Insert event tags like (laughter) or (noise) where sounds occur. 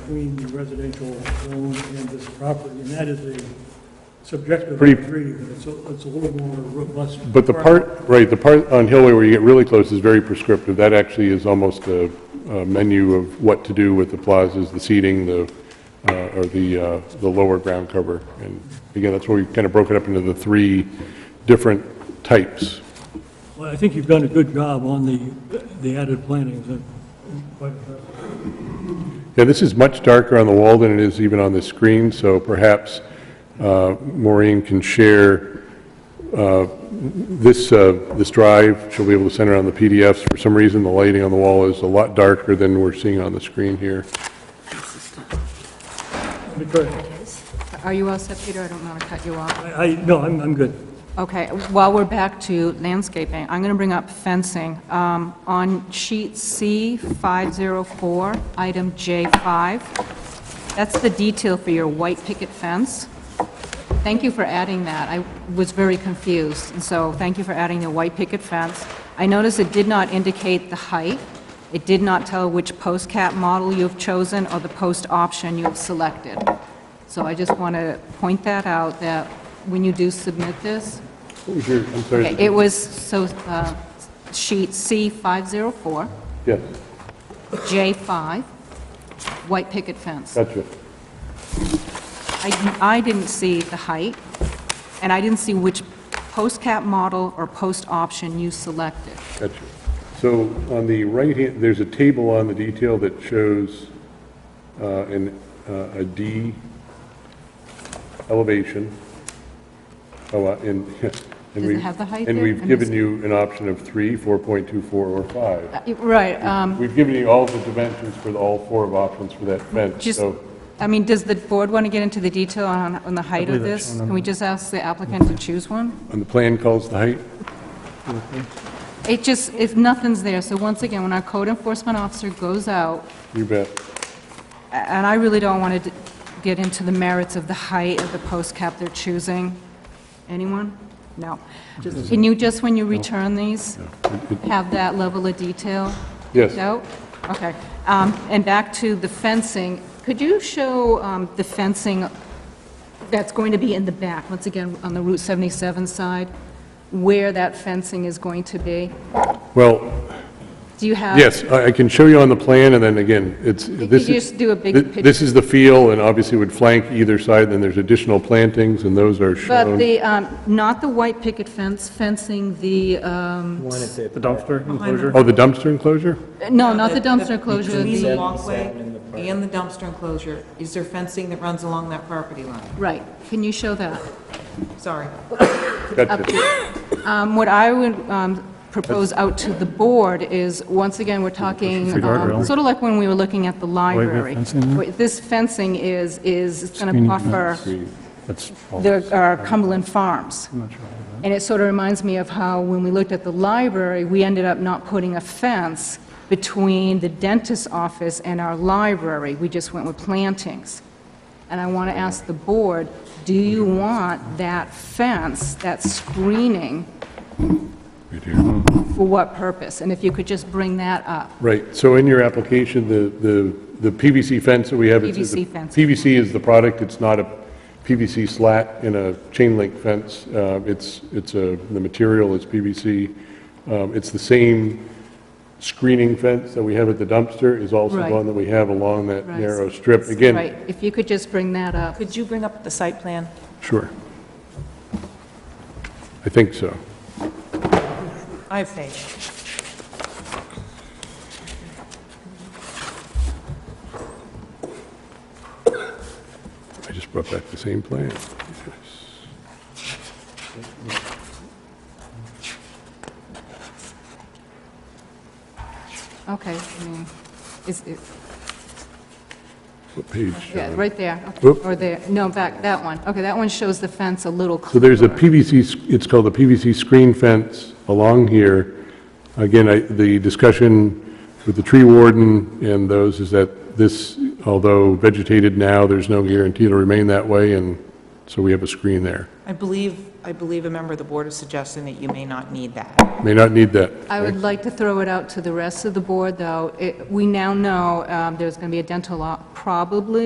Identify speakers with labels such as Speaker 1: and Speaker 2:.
Speaker 1: between the residential zone and this property, and that is a subjective
Speaker 2: Pretty-
Speaker 1: reading, but it's a, it's a little more robust.
Speaker 2: But the part, right, the part on Hillway where you get really close is very prescriptive. That actually is almost a a menu of what to do with the plazas, the seating, the, uh, or the, uh, the lower ground cover. And again, that's where we kind of broke it up into the three different types.
Speaker 1: Well, I think you've done a good job on the, the added plantings, and, but, uh,
Speaker 2: Yeah, this is much darker on the wall than it is even on the screen, so perhaps uh, Maureen can share uh, this, uh, this drive. She'll be able to send it on the PDFs. For some reason, the lighting on the wall is a lot darker than we're seeing on the screen here.
Speaker 1: because,
Speaker 3: Are you all set, Peter? I don't want to cut you off.
Speaker 1: I, I, no, I'm, I'm good.
Speaker 3: Okay, while we're back to landscaping, I'm going to bring up fencing. Um, On sheet C, 504, item J5, that's the detail for your white picket fence. Thank you for adding that. I was very confused, and so thank you for adding the white picket fence. I noticed it did not indicate the height. It did not tell which post cap model you have chosen or the post option you have selected. So I just want to point that out, that when you do submit this,
Speaker 2: What was your, I'm
Speaker 3: Okay,
Speaker 2: sorry,
Speaker 3: it was, so uh, sheet C504,
Speaker 2: yes,
Speaker 3: J5, white picket fence.
Speaker 2: gotcha.
Speaker 3: I I didn't see the height, and I didn't see which post cap model or post option you selected.
Speaker 2: Gotcha. So on the right hand, there's a table on the detail that shows uh, an, uh, a D elevation. Oh, uh, and, (laughs) and
Speaker 3: it
Speaker 2: we
Speaker 3: have the height
Speaker 2: And
Speaker 3: there?
Speaker 2: we've
Speaker 3: I'm
Speaker 2: given
Speaker 3: just-
Speaker 2: you an option of three, 4.24, or five.
Speaker 3: Uh, Right, um,
Speaker 2: We've given you all the dimensions for the- all four of options for that fence,
Speaker 3: just,
Speaker 2: so.
Speaker 3: I mean, does the board want to get into the detail on on the height of this? Can we just ask the applicant to choose one?
Speaker 2: And the plan calls the height?
Speaker 3: It just, if nothing's there, so once again, when our code enforcement officer goes out,
Speaker 2: You bet.
Speaker 3: And I really don't want to get into the merits of the height of the post cap they're choosing. Anyone? No. Can you just, when you return these, have that level of detail?
Speaker 2: Yes.
Speaker 3: No? Okay. Um, And back to the fencing, could you show um, the fencing that's going to be in the back, once again, on the Route 77 side, where that fencing is going to be?
Speaker 2: Well,
Speaker 3: Do you have?
Speaker 2: Yes, I I can show you on the plan, and then again, it's,
Speaker 3: Uh, could
Speaker 2: this is...
Speaker 3: just do a big
Speaker 2: thi-
Speaker 3: picture.
Speaker 2: This is the field, and obviously would flank either side, then there's additional plantings, and those are
Speaker 3: But
Speaker 2: shown.
Speaker 3: the, um, not the white picket fence fencing the, um,
Speaker 4: The dumpster enclosure?
Speaker 2: Oh, the dumpster enclosure?
Speaker 3: no, not the dumpster enclosure,
Speaker 5: Between the
Speaker 3: the,
Speaker 5: walkway and the dumpster enclosure, is there fencing that runs along that property line?
Speaker 3: right, can you show that?
Speaker 5: Sorry.
Speaker 2: Gotcha.
Speaker 3: Um, What I would um, propose out to the board is, once again, we're talking,
Speaker 4: It's a guardrail.
Speaker 3: um, sort of like when we were looking at the
Speaker 4: have
Speaker 3: library.
Speaker 4: fencing there?
Speaker 3: Wait, This fencing is, is, it's going to
Speaker 4: Screening
Speaker 3: buffer
Speaker 4: That's all.
Speaker 3: the our Cumberland Farms.
Speaker 4: I'm not sure about that.
Speaker 3: And it sort of reminds me of how, when we looked at the library, we ended up not putting a fence between the dentist's office and our library. We just went with plantings. And I want to ask the board, do you want that fence, that screening,
Speaker 2: Right here.
Speaker 3: for what purpose? And if you could just bring that up.
Speaker 2: Right, so in your application, the, the the PVC fence that we have... it's- it's a-
Speaker 3: PVC fence.
Speaker 2: PVC is the product, it's not a PVC slat in a chain link fence. Uh, It's, it's a, the material is PVC. Um, It's the same screening fence that we have at the dumpster is also the
Speaker 3: Right.
Speaker 2: one that we have along that
Speaker 3: Right.
Speaker 2: narrow strip. Again,
Speaker 3: Right, if you could just bring that up.
Speaker 5: Could you bring up the site plan?
Speaker 2: Sure. I think so.
Speaker 5: I have faith.
Speaker 2: I just brought back the same plan.
Speaker 3: Okay, I mean, is it,
Speaker 2: What page?
Speaker 3: yeah,
Speaker 2: John?
Speaker 3: right there. okay,
Speaker 2: Whoop.
Speaker 3: Or there, no, back, that one. Okay, that one shows the fence a little clearer.
Speaker 2: So there's a PVC, s- it's called the PVC screen fence along here. Again, I, the discussion with the tree warden and those is that this, although vegetated now, there's no guarantee it'll remain that way, and So we have a screen there.
Speaker 5: I believe, I believe a member of the board is suggesting that you may not need that.
Speaker 2: May not need that.
Speaker 3: I would like to throw it out to the rest of the board, though. It- We now know um, there's going to be a dental law, probably